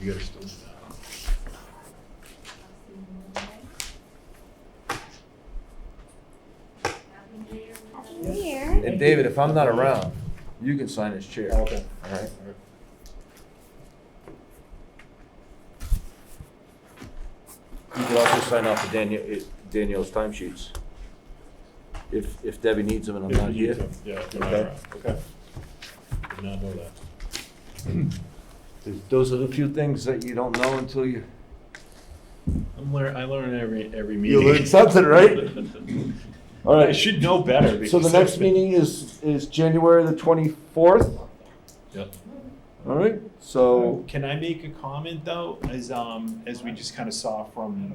You gotta still. Here. And David, if I'm not around, you can sign his chair. Oh, All Okay. right. You can also sign off for Danielle, eh, Danielle's time sheets. If, if Debbie needs them and I'm If not you here. can- Yeah, if you're not Okay. around. Okay. Did not know that. Those are the few things that you don't know until you. I'm learn, I learn every, every You meeting. learn something, right? All I right, should know better. so the because- next meeting is, is January the twenty-fourth, Yep. all right? So, Can I make a comment though, as um, as we just kind of saw from,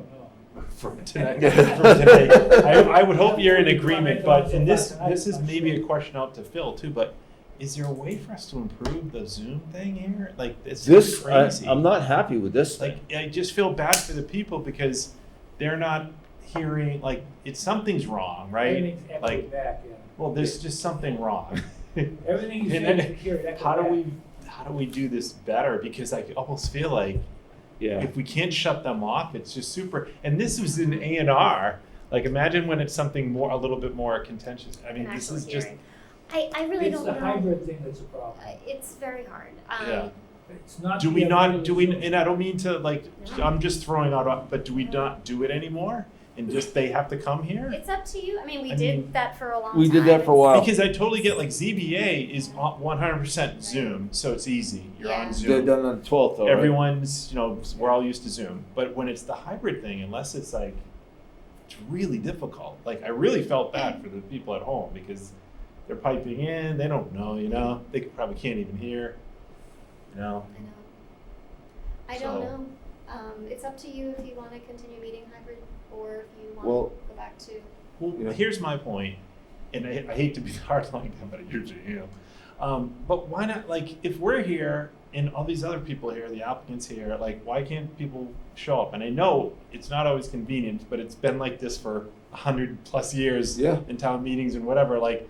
from tonight, from today? I, I would hope you're in agreement, but, and this, this is maybe a question out to Phil too, but is there a way for us to improve the Zoom thing here? Like, this is this, I, crazy. I'm not happy with this. Like, I just feel bad for the people because they're not hearing, like, it's, something's wrong, right? Everything's echoing Like, back, yeah. well, there's just something wrong. Everything you And say, then you hear it echo How do back. we, how do we do this better? Because I almost feel like Yeah, if we can't shut them off, it's just super. And this was in A and R. Like imagine when it's something more, a little bit more contentious. I mean, An this actual is just hearing. I, I really It's don't the know. hybrid thing that's a problem. Uh, It's very hard. Um, Yeah. It's not. do the we not ability do we? to- And I don't mean to like. No. I'm just throwing out. uh, But do we not do it anymore? And just they have to come here It's up to you. I mean, we I did mean- that for a long time. we did that for a while. because I totally get like ZBA is one hundred percent Zoom, so it's easy. You're Yeah. on They're Zoom. done on the twelfth, though, right? Everyone's you know we're all used to Zoom. But when it's the hybrid thing, unless it's like. it's really difficult. Like I really felt bad for the people at home because they're piping in, they don't know, you know, they could- probably can't even hear, you know. I know. I don't So- know. Um, it's up to you if you want to continue meeting hybrid or if you want Well- to go back to. Well, Yeah. here's my point, and I, I hate to be hard like that, but I usually am. Um, but why not? Like, if we're here and all these other people here, the applicants here, like, why can't people show up? And I know it's not always convenient, but it's been like this for a hundred plus years Yeah. in town meetings and whatever. Like,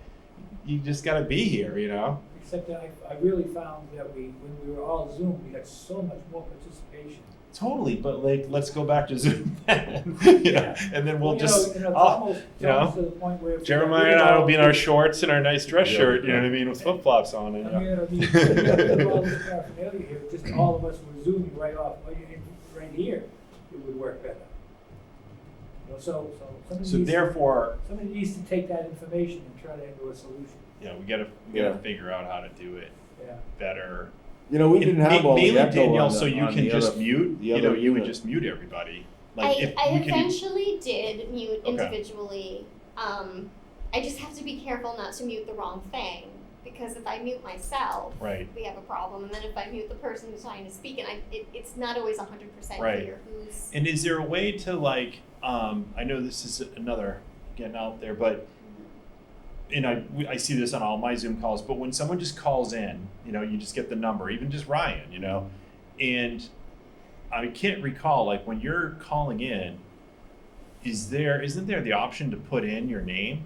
you just got to be here, you know. Except that I, I really found that we, when we were all Zoom, we had so much more participation. Totally, but like, let's go back to Zoom, then, you know, and then we'll Well, you know, just, you know, it's I'll- almost- it's you know, almost to the point where if we got Jeremiah rid and of I will all be in our the- shorts and our nice dress Yeah. shirt, you know what I mean, with flip flops on I and. mean, I mean, yeah. with all this paraphernalia here, just all of us were zooming right off, like, and right here, it would work better. You know, so, so So somebody needs, to- therefore, somebody needs to take that information and turn it into a solution, yeah, we gotta, we gotta Yeah. figure out how to do it yeah. better. You know, we didn't have all the Mainly echo on Danielle, the- so you on can the just other- mute, the you other know, you would unit. just mute everybody. Like I, if I you can, eventually did mute Okay. individually. Um, I just have to be careful not to mute the wrong thing because if I mute myself, right, we have a problem. And then if I mute the person who's trying to speak, and I, it, it's not always 100% Right. clear who's. and is there a way to like, um, I know this is another getting out there, but. And I, we- I see this on all my Zoom calls, but when someone just calls in, you know, you just get the number, even just Ryan, you know? And I can't recall, like when you're calling in, is there, isn't there the option to put in your name?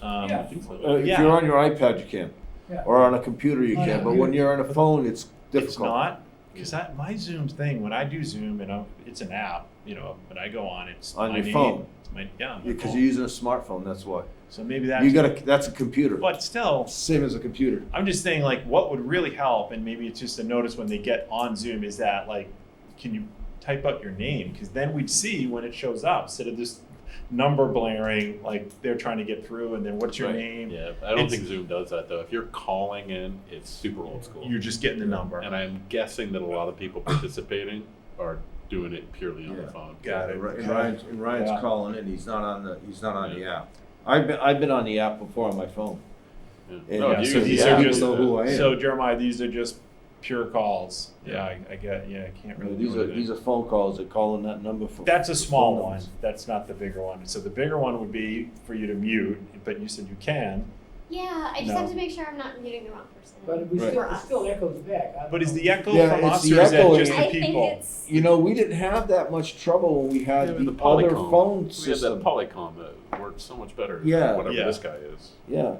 Um, Yeah. Uh, if Yeah. you're on your iPad, you can, Yeah. or on a computer, you On a can. But when computer. you're on a phone, it's difficult. It's not because I my Zoom thing when I do Zoom and I'm, it's an app, you know, but I go on it's On my your name, phone. it's my, yeah, on my because phone. you're using a smartphone. That's why so maybe that's you got a. That's a computer. but still, Same as a computer. I'm just saying like what would really help, and maybe it's just a notice when they get on Zoom is that like, can you type out your name? Because then we'd see when it shows up instead of this number blaring like they're trying to get through, and then what's your Right. name? Yeah, I don't It's- think Zoom does that though. If you're calling in, it's super old school. You're just getting the number. And I'm guessing that a lot of people participating are doing it purely on Yeah. the phone. Got it. And Ry- and Ryan's, and Ryan's Yeah. calling in. He's not on the. He's not on the app. I've been. I've been on the app before on my phone. Yeah. And No, Yeah, you so use the these app, are you just- do people know who that. I am. So Jeremiah, these are just pure calls. Yeah, I, I get. Yeah, I can't You know, really. these do are anything. these are phone calls. They're calling that number for. That's a for small phone one. numbers. That's not the bigger one. So the bigger one would be for you to mute, but you said you can. Yeah, I just No. have to make sure I'm not muting the wrong person. But we Right. still, For it us. still echoes back. I don't But is know. the echo Yeah, from it's us the or is that echo just I the think people? it's. You know, we didn't have that much trouble when we had Yeah, the, the other Polycom. phone We have that system. Polycom that worked so much better. than Yeah. Whatever Yeah. this guy is. yeah.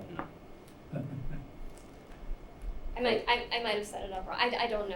I might, I, I might have set it up wrong. I, I don't know.